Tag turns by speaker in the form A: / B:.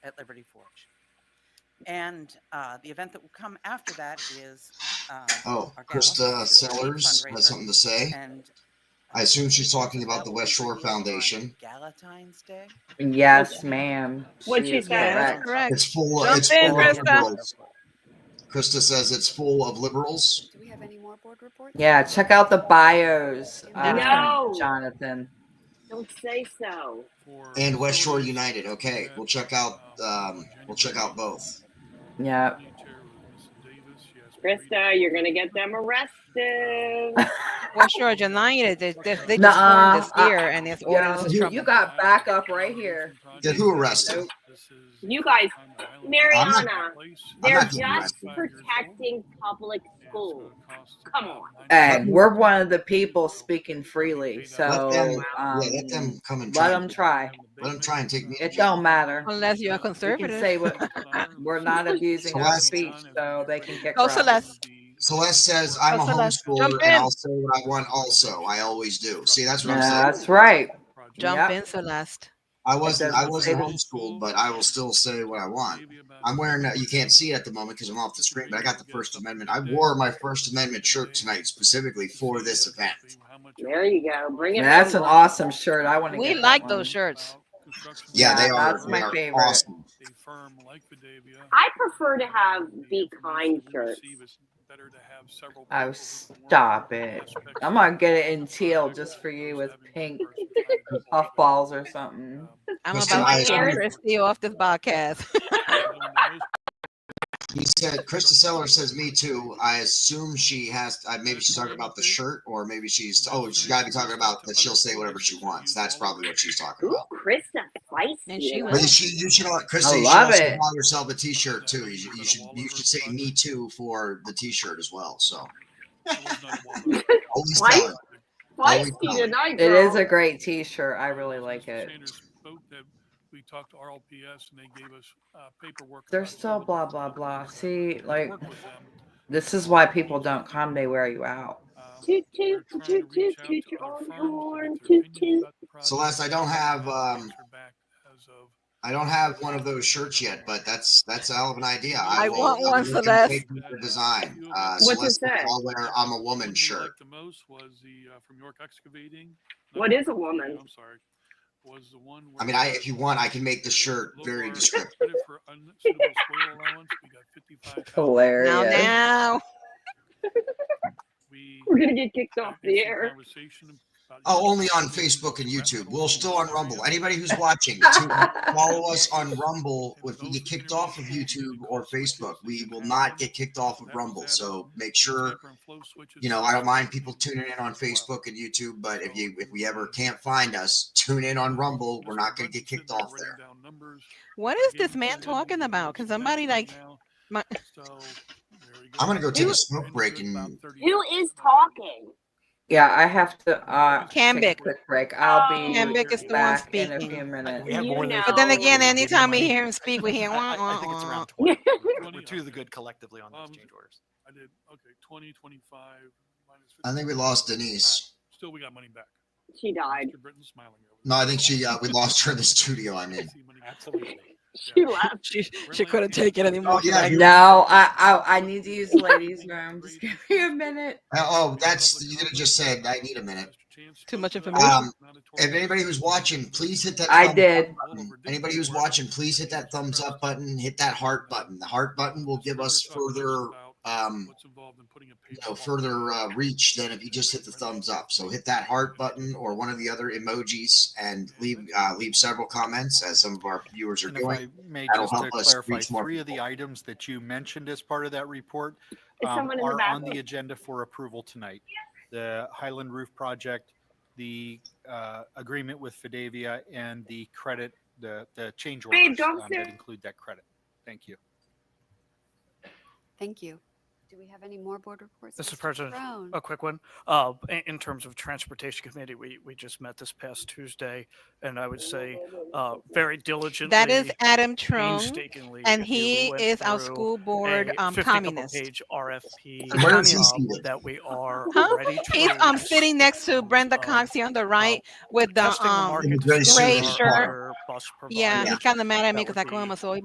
A: Ready Forge. And uh, the event that will come after that is. um,
B: Oh,
A: our gala,
B: Krista
A: which is a
B: Sellers
A: fundraiser,
B: has something to say.
A: And. uh,
B: I assume she's talking about
A: that
B: the
A: will be
B: West Shore
A: released on
B: Foundation.
A: Galatine's Day.
C: Yes, ma'am.
D: What'd she
C: is
D: say? That's
C: correct.
E: correct.
B: It's full.
E: Jump
B: it's
E: in,
B: full of
E: Krista.
B: liberals. Krista says it's full of liberals.
F: Do we have any more board reports?
C: Yeah, check out the bios, uh,
D: No.
C: Jonathan.
D: Don't say so.
B: and West Shore United. Okay, we'll check out.
G: uh,
B: Um, we'll check out both.
C: Yeah.
D: Krista, you're going to get them arrested.
E: West Georgia United, they, they, they just
C: Nuh-uh.
E: formed this year and it's
C: Yo,
E: orders is
C: you-
E: trouble.
C: you got backup right here.
B: Did who arrest him?
C: Nope.
D: You guys,
B: I'm
D: Mariana,
B: I'm
D: they're
B: not getting
D: just
B: arrested.
D: protecting public schools. Come on.
C: Hey, we're one of the people speaking freely,
B: Let
C: so
B: them,
C: um,
B: yeah, let them come and try.
C: let them try.
B: Let them try and take me.
C: It don't matter.
E: Unless you're a
C: We can
E: conservative.
C: say what, we're not abusing our
B: Celeste.
C: speech, so they can kick
E: Go
C: rocks.
E: Celeste.
B: Celeste says, "I'm a
E: Oh, Celeste,
B: homeschooler,
E: jump
B: and
E: in.
B: I'll say what I want. Also, I always do. See, that's what
C: Yeah,
B: I'm saying.
C: that's right.
E: Jump
C: Yep.
E: in Celeste.
B: I wasn't. I
C: doesn't
B: wasn't
C: say
B: homeschooled, but I will still say what I want. I'm wearing. A, you can't see it at the moment because I'm off the screen, but I got the First Amendment. I wore my First Amendment shirt tonight specifically for this event.
D: There you go. Bring it.
C: Yeah, that's an
D: home.
C: awesome shirt. I want to.
E: We
C: get that
E: like
C: one.
E: those shirts.
B: Yeah, they
C: Yeah,
B: are.
C: that's
B: they
C: my
B: are
C: favorite.
B: Awesome.
D: I prefer to have be kind shirts.
C: Oh, stop it! I'm gonna get it in teal just for you with pink puffballs or
G: Um,
C: something.
E: I'm
B: Mr.
E: about to
B: Myers.
E: kick Christie off E this podcast.
B: He said, Krista Seller says, me too. I assume she has, uh, maybe she's talking about the shirt, or maybe she's, oh, she's got to be talking about that she'll say whatever she wants. That's probably what she's talking
D: Ooh,
B: about.
D: Krista spicy.
E: And she
B: But
E: was-
B: you should, you should, Krista,
C: I
B: you should
C: love
B: also
C: it.
B: buy yourself a t-shirt too. You should, you should, you should say me too for the t-shirt as well. So always
D: Why?
B: tell her.
D: spicy
B: Oh, no.
D: tonight,
C: It
D: girl.
C: is a great T-shirt. I really like it.
G: We talked to RLPS and they gave us uh, paperwork.
C: They're
G: about
C: so
G: some of the
C: blah
G: stuff
C: blah
G: that
C: blah.
G: we
C: See, like
G: worked with them.
C: this is why people don't come. They wear you out.
G: Um,
D: Toot,
G: we're
D: toot,
G: trying to
D: toot,
G: reach
D: toot,
G: out
D: toot
G: to
D: your
G: other
D: own
G: firms to get
D: horn.
G: their
D: Toot,
G: opinions
D: toot.
G: about the project.
B: Celeste, I don't have, um,
G: Answer back as of
B: I don't have one of those shirts yet, but that's, that's a hell of an idea.
E: I
B: will-
E: want
B: I'll
E: one,
B: look into
E: Celeste.
B: the Design. Uh,
D: What's it
B: Celeste,
D: say?
B: I'll wear I'm a
G: The
B: woman
G: one we
B: shirt.
G: liked The most was the, uh, from York Excavating.
D: What
G: Not
D: is a
G: York Excavating,
D: woman?
G: I'm sorry, was the one.
B: I
G: where
B: mean, I,
G: it
B: if you want, I can make the shirt
G: low
B: very
G: bar
B: descriptive.
G: credit for unsuitable soil allowance. We got 55,000.
E: Now,
C: Hilarious.
E: now,
G: We
D: We're gonna get kicked
G: had
D: off
G: a
D: the
G: decent
D: air.
G: conversation about-
B: Oh, only on Facebook and YouTube. We're still on Rumble. Anybody who's watching, to follow us on Rumble. If we get kicked off of YouTube or Facebook, we will not get kicked off of Rumble. So make sure,
G: Zipper and flow switches.
B: you know, I don't mind people tuning in on Facebook and YouTube, but if you if we ever can't find us, tune in on Rumble. We're not going to get kicked off there.
E: what is this man talking about? Can somebody like my-
B: I'm gonna go take a smoke break and-
D: Who is talking?
C: Yeah, I have to. Uh,
E: Cambic.
C: take a Quick break. I'll be
E: Cambic is the one
C: back in a
E: speaking.
C: few minutes.
H: We have
D: You
H: one of those
E: but then
D: No.
H: things where
E: again,
H: we give you
E: anytime we
H: money.
E: hear him speak, we hear.
H: I, I- I think it's around 20. We're two of the good collectively on those
G: Um,
H: change orders.
G: I did, okay, 20, 25, minus
B: I think we
G: 50.
B: lost Denise.
G: Still, we got money back.
D: She died.
G: Mr. Britton's smiling over
B: No, I
G: there.
B: think she uh, we lost her in the studio. I mean,
G: See money back.
H: Absolutely.
D: She left.
E: She,
G: she couldn't take it anymore.
B: oh yeah, you-
C: No, I, I I need to use the ladies' room. Just give me a minute.
B: oh that's you could have just said I need a minute.
E: Too much information.
B: Um, if anybody who's watching, please hit that.
C: I
B: thumbs
C: did.
B: up button. Hmm. Anybody who's watching, please hit that thumbs up button. Hit that heart button. The heart button will give us further, um, you know, further uh, reach than if you just hit the thumbs up. So hit that heart button or one of the other emojis and leave uh, leave several comments as some of our viewers are
H: And if I
B: doing.
H: may
B: that'll
H: just to
B: help us
H: clarify,
B: reach more
H: three of the
B: people.
H: items that you mentioned as part of that report
D: Is
H: um,
D: someone in the
H: are on the
D: bathroom?
H: agenda for approval tonight. The Highland Roof Project, the uh, agreement with Fidavia, and the credit, the, the change
D: Babe,
H: orders
D: don't
H: um,
D: say-
H: that include that credit. Thank you.
F: Thank you. Do we have any more board reports?
I: Mr.
F: Mr.
I: President,
F: Brown?
I: a quick one. Uh, in, in terms of Transportation Committee, we, we just met this past Tuesday, and I would say, uh, very diligently.
E: That is Adam Trone,
I: painstakingly.
E: and
I: we
E: he
I: went
E: is our
I: through
E: school board
I: a
E: um,
I: 50 couple
E: communist.
I: Page
E: And
I: RFP.
E: where is he
I: um,
B: seated?
I: That we are
E: Huh?
I: ready to.
E: He's um
I: release.
E: sitting next to Brenda
I: Um,
E: Cox here on the right with the
I: Testing the
E: um
I: market to
B: Gray
I: see our
E: shirt. shirt.
I: other Bus
E: yeah,
I: providers.
E: he kind of mad at me
I: That
E: because I
I: would
E: call him
I: be-
E: a soy